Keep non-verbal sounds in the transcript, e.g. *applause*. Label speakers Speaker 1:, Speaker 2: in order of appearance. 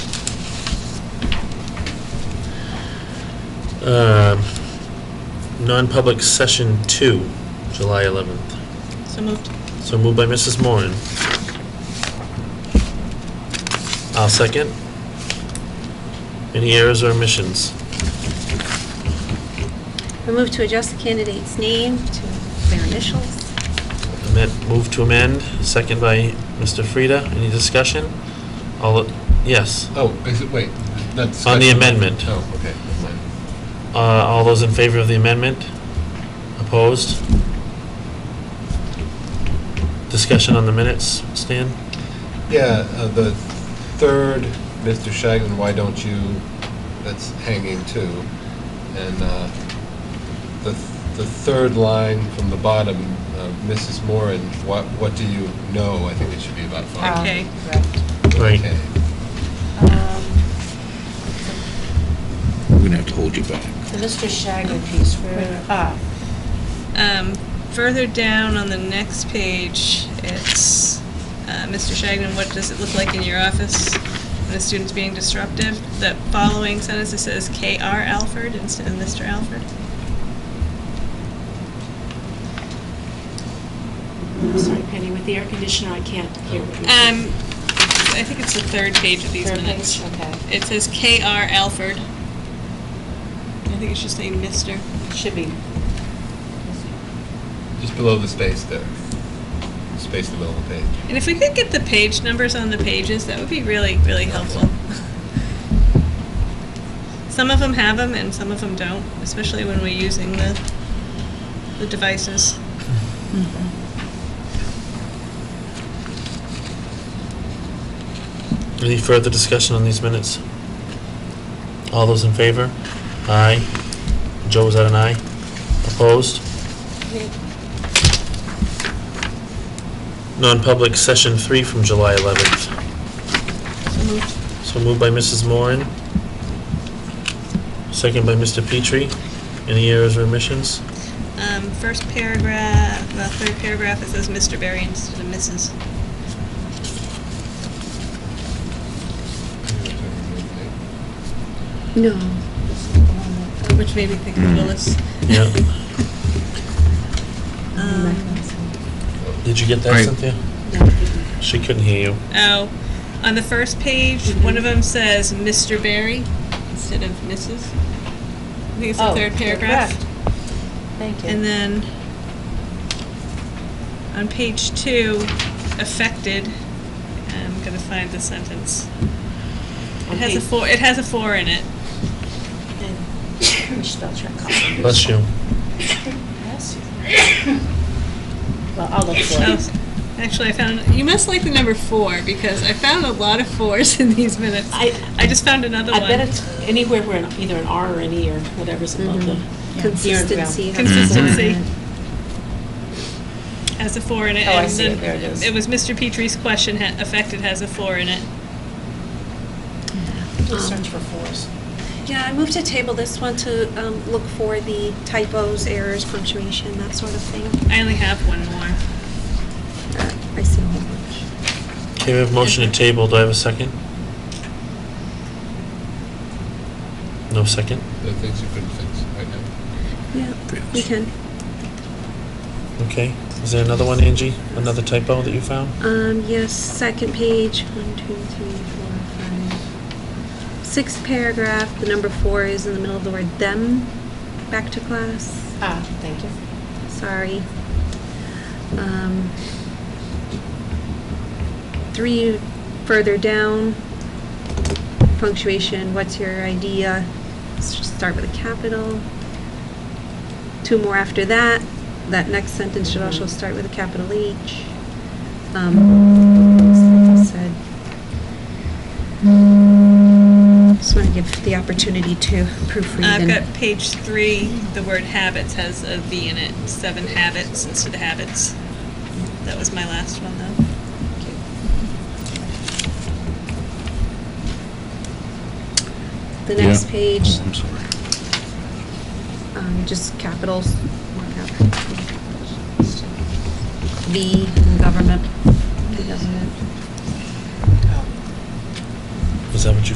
Speaker 1: Um, Non-public session two, July 11th.
Speaker 2: So moved.
Speaker 1: So moved by Mrs. Moran. I'll second. Any errors or omissions?
Speaker 3: We move to adjust the candidate's name to their initials.
Speaker 1: Amend- Move to amend, second by Mr. Frida. Any discussion? All, yes.
Speaker 4: Oh, is it, wait, that's.
Speaker 1: On the amendment.
Speaker 4: Oh, okay. never mind.
Speaker 1: Uh, All those in favor of the amendment? Opposed? Discussion on the minutes, Stan?
Speaker 4: Yeah, uh, the third, Mr. Shagnon, why don't you, that's hanging too. And uh, the, the third line from the bottom, uh, Mrs. Moran, what, what do you know? I think it should be about
Speaker 5: Um,
Speaker 4: five.
Speaker 2: Okay.
Speaker 1: Right.
Speaker 4: Okay.
Speaker 6: We're going to have to hold you back.
Speaker 5: The Mr. Shagnon piece, where, ah,
Speaker 2: Um, Further down on the next page, it's, uh, Mr. Shagnon, what does it look like in your office when a student's being disruptive? The following sentence, it says K.R. Alford instead of Mr. Alford.
Speaker 5: sorry Penny, with the air conditioner, I can't hear what you're
Speaker 2: Um, I think it's the third page of these
Speaker 5: Third
Speaker 2: minutes.
Speaker 5: page, okay.
Speaker 2: It says K.R. Alford. I think it should say Mr.
Speaker 5: Should be.
Speaker 4: Just below the space there. Space in the middle of the page.
Speaker 2: And if we could get the page numbers on the pages, that would be really, really helpful. Some of them have them and some of them don't, especially when we're using the, the devices.
Speaker 1: Any further discussion on these minutes? All those in favor? Aye. Joe, was that an aye? Opposed? Non-public session three from July 11th.
Speaker 2: So moved.
Speaker 1: So moved by Mrs. Moran. Second by Mr. Petrie. Any errors or omissions?
Speaker 2: Um, first paragraph, the third paragraph, it says Mr. Barry instead of Mrs.
Speaker 3: No.
Speaker 2: Which made me think
Speaker 5: Hmm.
Speaker 2: of Willis.
Speaker 1: Yeah.
Speaker 2: Um,
Speaker 1: Did you get that,
Speaker 6: Right.
Speaker 1: Cynthia? She couldn't hear you.
Speaker 2: Oh, on the first page,
Speaker 5: Mm-hmm.
Speaker 2: one of them says Mr. Barry instead of Mrs. I think it's the
Speaker 5: Oh,
Speaker 2: third paragraph.
Speaker 5: correct. Thank you.
Speaker 2: And then on page two, affected, I'm gonna find the sentence. It
Speaker 5: On
Speaker 2: has a
Speaker 5: page-
Speaker 2: four, it has a four in it.
Speaker 5: *coughs* And spell check.
Speaker 1: Bless you.
Speaker 5: Well, I'll look for it.
Speaker 2: Oh, Actually, I found, you must like the number four because I found a lot of fours in these minutes.
Speaker 5: I-
Speaker 2: I just found another
Speaker 5: I
Speaker 2: Oh, one.
Speaker 5: bet it's anywhere where an- either an R or an E or whatever's above the.
Speaker 3: Consistency.
Speaker 2: Consistency. Has a four in it.
Speaker 7: Oh, I
Speaker 2: and
Speaker 7: see it.
Speaker 2: then
Speaker 7: There it is.
Speaker 2: It was Mr. Petrie's question, ha- affected has a four in it.
Speaker 5: Just search for fours.
Speaker 3: Um, Yeah, I moved to table this one to um, look for the typos, errors, punctuation, that sort of thing.
Speaker 2: I only have one more.
Speaker 3: Uh, I see a whole bunch.
Speaker 1: Okay, we have a motion to table. Do I have a second? No second?
Speaker 4: The things you couldn't fix right now.
Speaker 3: Yeah, we can.
Speaker 1: Okay. Is there another one, Angie? Another typo that you found?
Speaker 3: Um, yes, second page, one, two, three, four, five. Sixth paragraph, the number four is in the middle of the word them. Back to class,
Speaker 5: Ah, thank you.
Speaker 3: sorry. Um, Three further down, punctuation, what's your idea? Let's just start with a capital. Two more after that, that next sentence should also
Speaker 2: Mm-hmm.
Speaker 3: start with a capital H.
Speaker 2: Mm-hmm.
Speaker 3: Um, said. Just want to give the opportunity to proofread.
Speaker 2: I've
Speaker 3: and-
Speaker 2: got page three, the word habits has a V in it, seven habits instead of habits. That was my last one, though.
Speaker 3: The next
Speaker 6: Yeah.
Speaker 3: page,
Speaker 6: Oh, I'm sorry.
Speaker 3: um, just capitals. more cap- V in government. The government.
Speaker 1: Is that what you